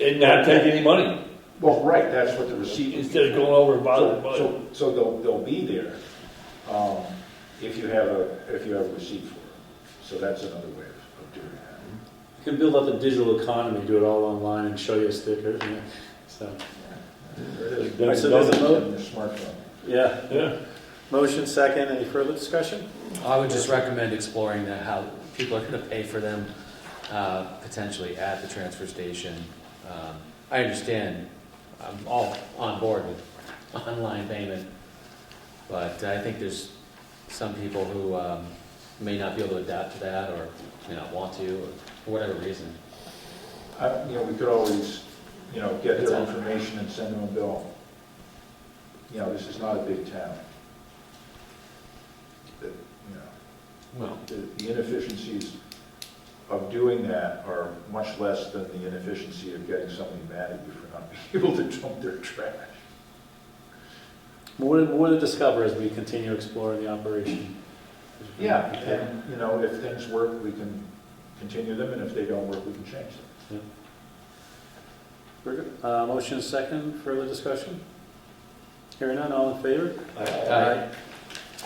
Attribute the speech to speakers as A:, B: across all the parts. A: and not take any money,
B: Well, right, that's what the receipt.
A: instead of going over and bothering
B: So,
A: money.
B: so, so they'll, they'll be there, um, if you have a, if you have a receipt for it. So that's another way of of doing that.
C: You can build up a digital economy, do it all online and show you a sticker. you know, So,
B: There it is.
A: All
C: right, so there's a vote?
B: In the smartphone.
C: yeah.
A: Yeah,
C: Motion second, any further discussion?
D: I would just recommend exploring that, how people are gonna pay for them, uh, potentially at the transfer station. Um, I understand, I'm all on board with online payment, but I think there's some people who, um, may not be able to adapt to that, or may not want to, or for whatever reason.
B: I, you know, we could always, you know, get
D: That's
B: their
D: all.
B: information and send them a bill. You know, this is not a big town. That, you know.
D: Well,
B: the the inefficiencies of doing that are much less than the inefficiency of getting somebody mad at you for not being able to dump their trash.
C: More, to- more to discover as we continue exploring the operation.
B: And, you know, if things work, we can continue them, and if they don't work, we can change them.
C: Very good. Uh, motion second, further discussion? Hearing none, all in favor?
D: Aye.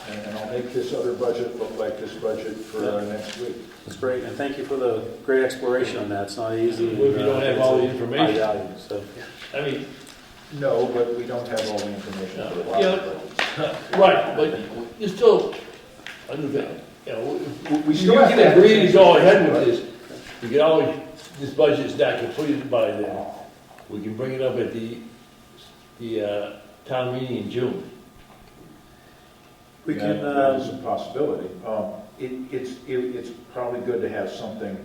B: And and I'll make this other budget look like this budget for uh, next week.
C: That's great, and thank you for the great exploration on that, it's not easy. uh,
A: Well, if you don't have all the
C: It's a high
A: information.
C: value, So,
A: I mean,
B: No, but we don't have all the information for a lot
A: Yeah.
B: of those.
A: right, but you're still, I do that, you know,
B: We- We
A: you
B: still have to
A: can
B: have.
A: agree to go ahead with this. You can always, this budget's not completed by then. We can bring it up at the, the, uh, town meeting in June.
C: we
B: Yeah,
C: can,
B: That is
C: um,
B: a possibility. uh, Um, It, it's, it- it's probably good to have something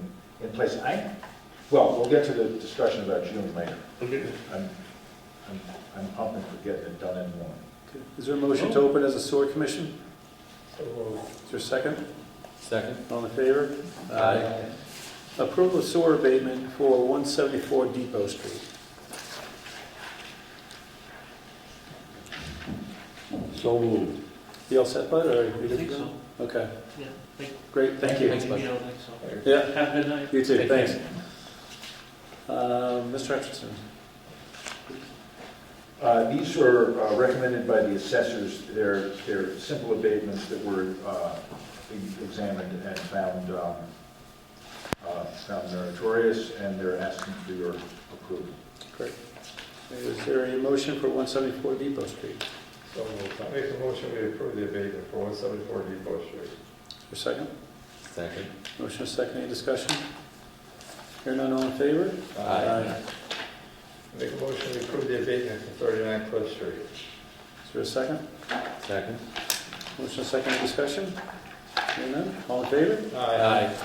B: in place. I, well, we'll get to the discussion about June later.
A: Okay.
B: I'm, I'm, I'm pumping for getting it done in one.
C: is there a motion
A: Oh.
C: to open as a sewer commission? Is there a second?
D: second?
C: All in favor?
D: Aye.
C: Approval of sewer abatement for 174 Depot Street.
A: So moved.
C: You all set, bud, or?
E: I think so,
C: Okay,
E: yeah. Thank-
C: great, thank you.
E: Thank you, yeah, I think so.
C: Yeah,
E: Have a good night.
C: you too,
D: Take care.
C: thanks. Uh, Mr. Hutchinson,
B: Uh, These were uh, recommended by the assessors. They're, they're simple abatements that were uh, e- examined and found, um, uh, found meritorious, and they're asking for your approval.
C: great. Is there a motion for 174 Depot Street?
F: So moved. I make a motion we approve the abatement for one seventy-four Depot Street.
C: Is there a second?
D: Second.
C: Motion is second, any discussion? Hearing none, all in favor?
D: Aye.
F: I Make a motion we approve the abatement for thirty-nine Cliff Street.
C: Is there a second?
D: Second?
C: Motion is second, any discussion? Hearing none, all in favor?
D: Aye.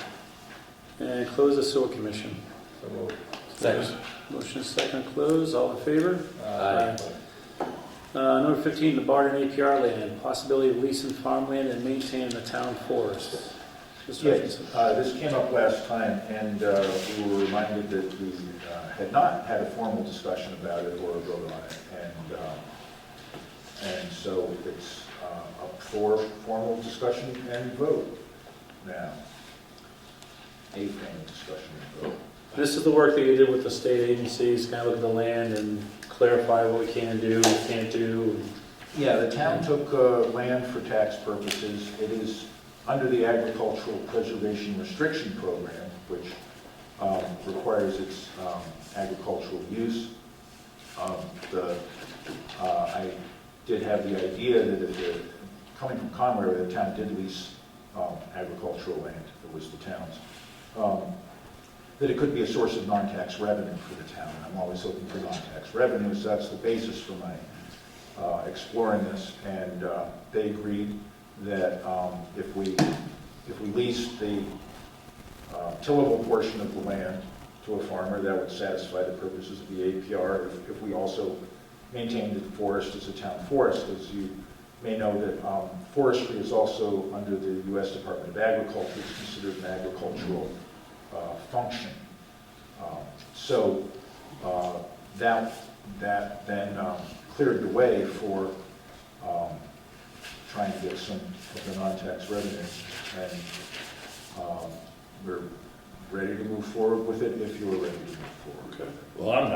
C: And close the sewer commission.
F: So moved.
D: Second.
C: Motion is second, close, all in favor?
D: Aye.
C: Uh, Number 15, the Barton APR land, possibility of leasing farmland and maintaining the town forest.
B: Yes,
C: Mr. Hutchinson.
B: uh, this came up last time, and uh, we were reminded that we uh, had not had a formal discussion about it or a vote on it. And, um, and so it's uh, up for formal discussion and vote now. A formal discussion and vote.
C: This is the work that you did with the state agencies, kind of look at the land and clarify what we can do, can't do.
B: Yeah, the town took uh, land for tax purposes. It is under the agricultural preservation restriction program, which um, requires its um, agricultural use. Um, The, uh, I did have the idea that if, the- coming from Conway, the town did lease um, agricultural land, it was the town's, um, that it could be a source of non-tax revenue for the town. I'm always looking for non-tax revenues, that's the basis for my uh, exploring this, and uh, they agreed that um, if we, if we leased the uh, tillable portion of the land to a farmer, that would satisfy the purposes of the APR. If- If we also maintained the forest as a town forest, as you may know, that um, forestry is also under the U.S. Department of Agriculture, it's considered an agricultural uh, function. Um, So uh, that, that then um, cleared the way for um, trying to get some of the non-tax revenues. And um, we're ready to move forward with it if you're ready to move forward.
A: Well, I'm not.